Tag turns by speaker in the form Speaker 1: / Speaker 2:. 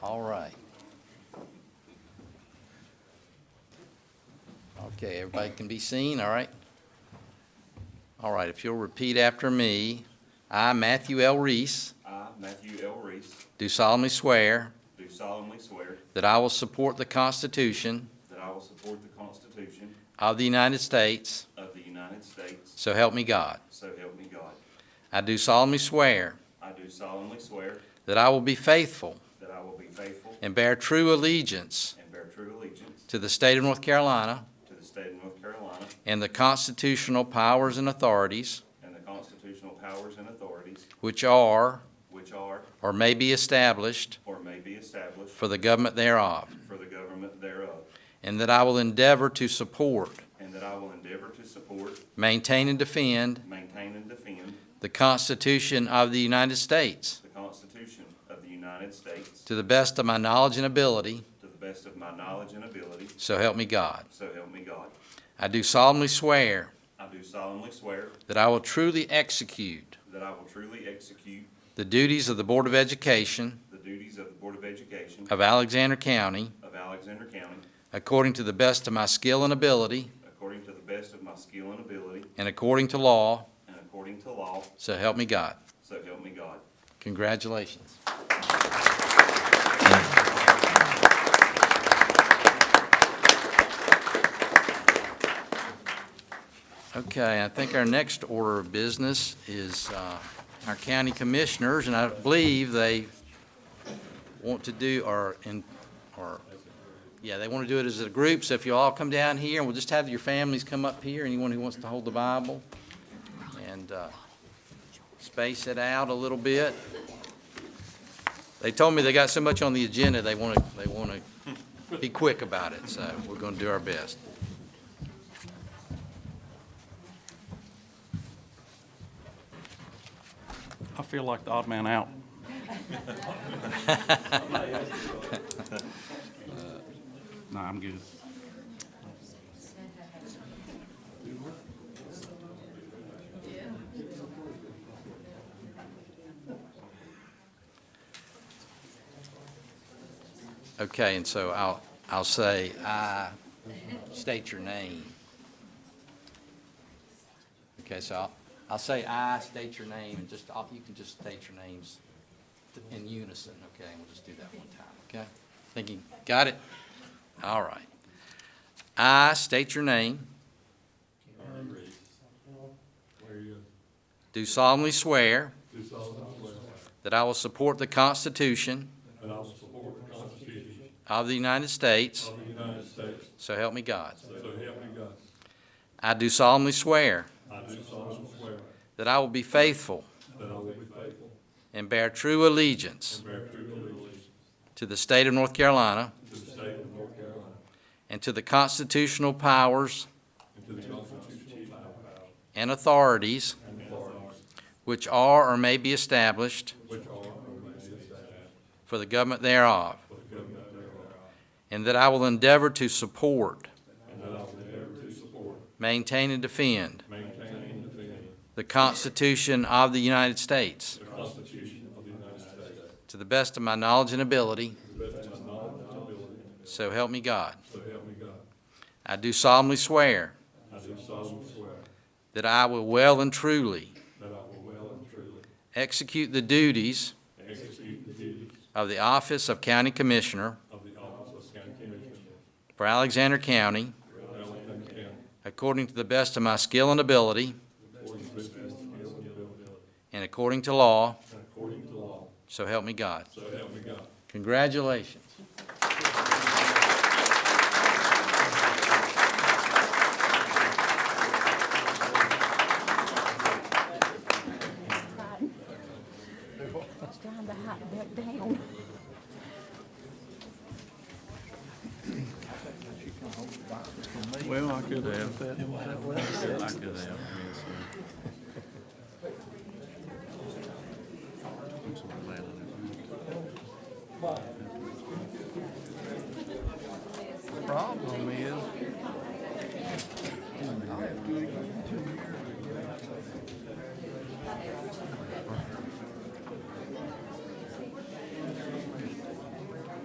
Speaker 1: All right. Okay, everybody can be seen, all right? All right, if you'll repeat after me, I, Matthew L. Reese,
Speaker 2: I, Matthew L. Reese,
Speaker 1: do solemnly swear
Speaker 2: do solemnly swear
Speaker 1: that I will support the Constitution
Speaker 2: that I will support the Constitution
Speaker 1: of the United States,
Speaker 2: of the United States,
Speaker 1: so help me God.
Speaker 2: so help me God.
Speaker 1: I do solemnly swear
Speaker 2: I do solemnly swear
Speaker 1: that I will be faithful
Speaker 2: that I will be faithful
Speaker 1: and bear true allegiance
Speaker 2: and bear true allegiance
Speaker 1: to the state of North Carolina
Speaker 2: to the state of North Carolina
Speaker 1: and the constitutional powers and authorities
Speaker 2: and the constitutional powers and authorities
Speaker 1: which are
Speaker 2: which are
Speaker 1: or may be established
Speaker 2: or may be established
Speaker 1: for the government thereof,
Speaker 2: for the government thereof,
Speaker 1: and that I will endeavor to support,
Speaker 2: and that I will endeavor to support,
Speaker 1: maintain, and defend
Speaker 2: maintain, and defend
Speaker 1: the Constitution of the United States
Speaker 2: the Constitution of the United States
Speaker 1: to the best of my knowledge and ability,
Speaker 2: to the best of my knowledge and ability,
Speaker 1: so help me God.
Speaker 2: so help me God.
Speaker 1: I do solemnly swear
Speaker 2: I do solemnly swear
Speaker 1: that I will truly execute
Speaker 2: that I will truly execute
Speaker 1: the duties of the Board of Education
Speaker 2: The duties of the Board of Education
Speaker 1: of Alexander County
Speaker 2: of Alexander County,
Speaker 1: according to the best of my skill and ability
Speaker 2: according to the best of my skill and ability,
Speaker 1: and according to law,
Speaker 2: and according to law,
Speaker 1: so help me God.
Speaker 2: so help me God.
Speaker 1: Congratulations. Okay, I think our next order of business is uh, our county commissioners, and I believe they want to do, or, in- or, yeah, they want to do it as a group, so if you all come down here, and we'll just have your families come up here, anyone who wants to hold the Bible, and uh, space it out a little bit. They told me they got so much on the agenda, they want to, they want to be quick about it, so we're going to do our best.
Speaker 3: I feel like the odd man out. No, I'm good.
Speaker 1: Okay, and so I'll, I'll say, I state your name. Okay, so I'll, I'll say I, state your name, and just, I'll- you can just state your names in unison, okay? And we'll just do that one time, okay? Thinking, got it? All right. I state your name,
Speaker 4: Aaron Reese. Where you
Speaker 1: do solemnly swear
Speaker 4: do solemnly swear
Speaker 1: that I will support the Constitution
Speaker 4: that I will support the Constitution
Speaker 1: of the United States,
Speaker 4: of the United States,
Speaker 1: so help me God.
Speaker 4: so help me God.
Speaker 1: I do solemnly swear
Speaker 4: I do solemnly swear
Speaker 1: that I will be faithful
Speaker 4: that I will be faithful
Speaker 1: and bear true allegiance
Speaker 4: and bear true allegiance
Speaker 1: to the state of North Carolina
Speaker 4: to the state of North Carolina
Speaker 1: and to the constitutional powers
Speaker 4: and to the Constitution of
Speaker 1: and authorities
Speaker 4: and authorities
Speaker 1: which are or may be established
Speaker 4: which are or may be established
Speaker 1: for the government thereof,
Speaker 4: for the government thereof,
Speaker 1: and that I will endeavor to support,
Speaker 4: and that I will endeavor to support,
Speaker 1: maintain, and defend
Speaker 4: maintain, and defend
Speaker 1: the Constitution of the United States
Speaker 4: the Constitution of the United States
Speaker 1: to the best of my knowledge and ability,
Speaker 4: to the best of my knowledge and ability,
Speaker 1: so help me God.
Speaker 4: so help me God.
Speaker 1: I do solemnly swear
Speaker 4: I do solemnly swear
Speaker 1: that I will well and truly
Speaker 4: that I will well and truly
Speaker 1: execute the duties
Speaker 4: execute the duties
Speaker 1: of the office of County Commissioner
Speaker 4: of the office of county commissioner
Speaker 1: for Alexander County
Speaker 4: for Alexander County
Speaker 1: according to the best of my skill and ability
Speaker 4: according to the best of my skill and ability
Speaker 1: and according to law,
Speaker 4: and according to law.
Speaker 1: so help me God.
Speaker 4: So help me God.
Speaker 1: Congratulations.
Speaker 5: It's time to hot that down.
Speaker 3: Well, I could have that. I could have. I'm so glad I didn't.
Speaker 6: problem is,